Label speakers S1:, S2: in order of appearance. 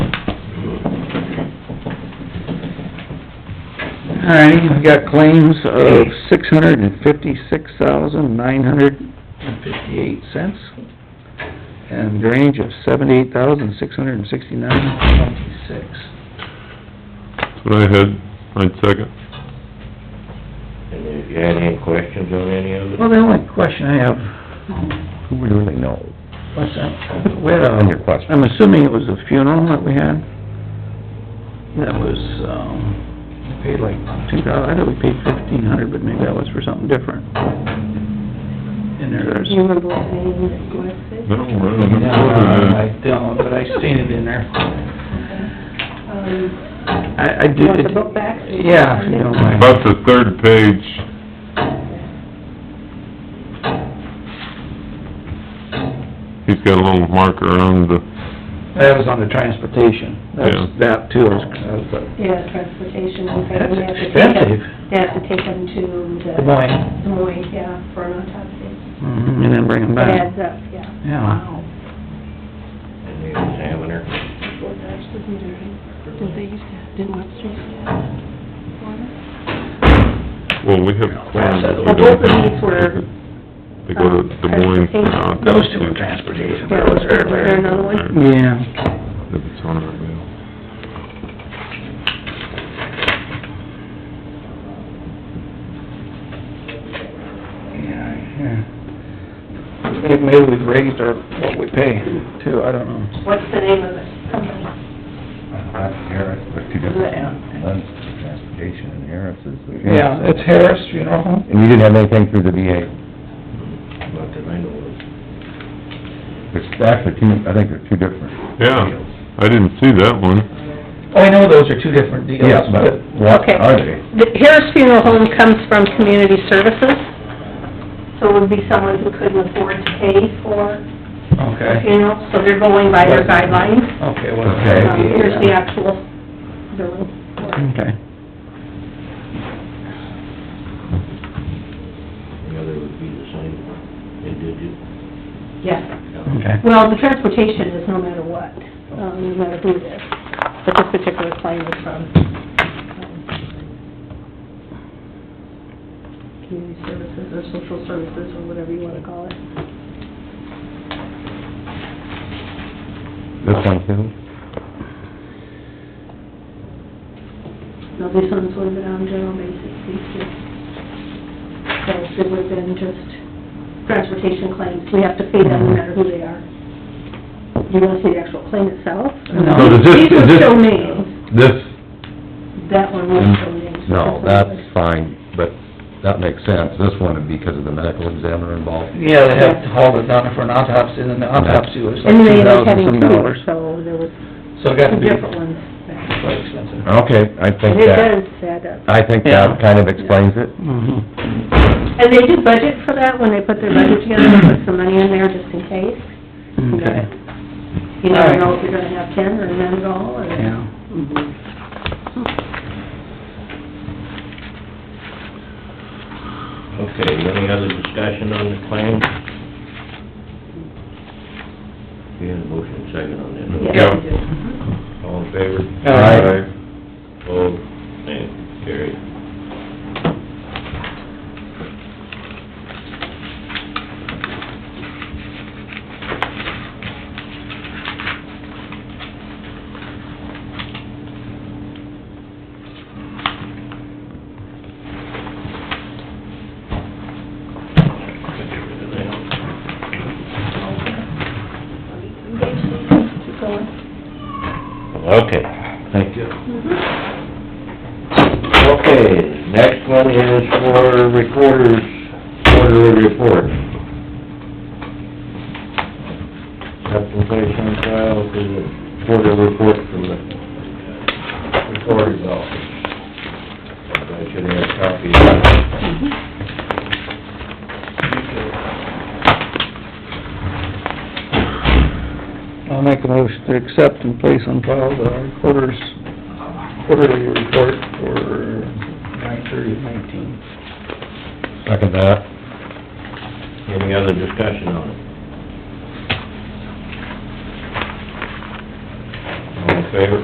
S1: Alrighty, we got claims of six hundred and fifty-six thousand, nine hundred and fifty-eight cents, and range of seventy-eight thousand, six hundred and sixty-nine, twenty-six.
S2: That's what I had, I'd second.
S3: And if you had any questions on any of it?
S1: Well, the only question I have,
S4: Who would really know?
S1: what's that, we had a...
S4: On your question.
S1: I'm assuming it was a funeral that we had? That was, um, we paid like two thousand, I thought we paid fifteen hundred, but maybe that was for something different. And there's...
S5: Do you remember what name it
S2: No,
S5: was?
S2: I don't
S1: No, I
S2: know.
S1: don't, but I seen it in there.
S5: Um,
S1: I, I did...
S5: You want the book back?
S1: Yeah, if you don't mind.
S2: About the third page, he's got a little marker on the,
S1: That was on the transportation. That's,
S2: Yeah.
S1: that too was, that's a-
S5: Yeah, transportation, okay.
S1: That's
S5: we have to take 'em-
S1: expensive.
S5: They have to take them to the...
S1: Des Moines.
S5: Des Moines, yeah, for an autopsy.
S1: mhm, and then bring them
S5: It adds
S1: back.
S5: up, yeah.
S1: Yeah.
S5: Wow.
S3: And the examiner?
S5: Well, that's the meter, right? Did they used to, have- didn't Webster used to have one?
S2: well, we have claims. that we
S5: Well, both of
S2: don't
S5: these were,
S2: They go to Des Moines for an autopsy.
S1: uh, Those two were transportation.
S5: Yeah, was there- was there another one?
S1: Yeah.
S2: If it's on our bill.
S1: Yeah, yeah. Maybe- Maybe we've raised our, what we pay too, I don't know.
S5: What's the name of it? Company.
S4: Harris, but two
S5: different-
S4: one's transportation and Harris is
S1: Yeah, it's Harris Funeral Home.
S4: And you didn't have anything through the VA?
S3: Not that I know of.
S4: There's actually two, I think they're two different.
S2: Yeah, I didn't see that one.
S1: Oh, I know those are two different deals,
S4: Yeah, but
S1: but
S4: what
S5: Okay.
S4: are they?
S5: The Harris Funeral Home comes from community services, so it would be someone who couldn't afford to pay for a
S1: Okay,
S5: funeral, so they're going by their guidelines.
S1: okay, well.
S4: Okay.
S5: Um, Here's the actual bill.
S1: Okay.
S3: The other would be the same, they did it.
S5: Yes.
S1: Okay.
S5: Well, the transportation is no matter what, um, no matter who it is, but this particular claim is from, um, community services or social services or whatever you wanna call it.
S4: This one too?
S5: No, this one's would have been on general basis, these two. So it would have been just transportation claims, we have to pay them no matter who they are. Do you wanna see the actual claim itself?
S1: No.
S4: So does this-
S5: These
S4: is
S5: are
S4: this-
S5: still names,
S4: This,
S5: that one was still names.
S4: Mm. no, that's fine, but that makes sense. This one would be because of the medical examiner involved.
S1: Yeah, they have to haul it down for an autopsy, and then the autopsy was like
S5: And they
S1: two
S5: ended up
S1: thousand some
S5: having two,
S1: dollars.
S5: so there was
S1: So it got to
S5: two
S1: be
S5: different ones.
S1: quite expensive.
S4: Okay, I think
S5: It does
S4: that,
S5: add up.
S4: I think
S1: Yeah.
S4: that kind of explains it.
S1: Mhm.
S5: And they did budget for that when they put their budget together, they put some money in there just in case.
S1: Okay,
S5: You never know if you're gonna have ten or none at all, or...
S1: yeah.
S3: Okay, any other discussion on the claim? We had a motion second on that.
S5: Yeah, they mm-hmm. do.
S3: All in favor?
S1: Aye.
S3: Opposed? And carried.
S5: Keep going.
S3: Okay, thank you. Okay, next one is for recorder's quarterly report. Application file for the quarterly report from the recorder's office. I should have a copy of that.
S1: I'll make a motion to accept and place on file the recorder's quarterly report for nine thirty of nineteen.
S4: Second that.
S3: Any other discussion on it? All in favor?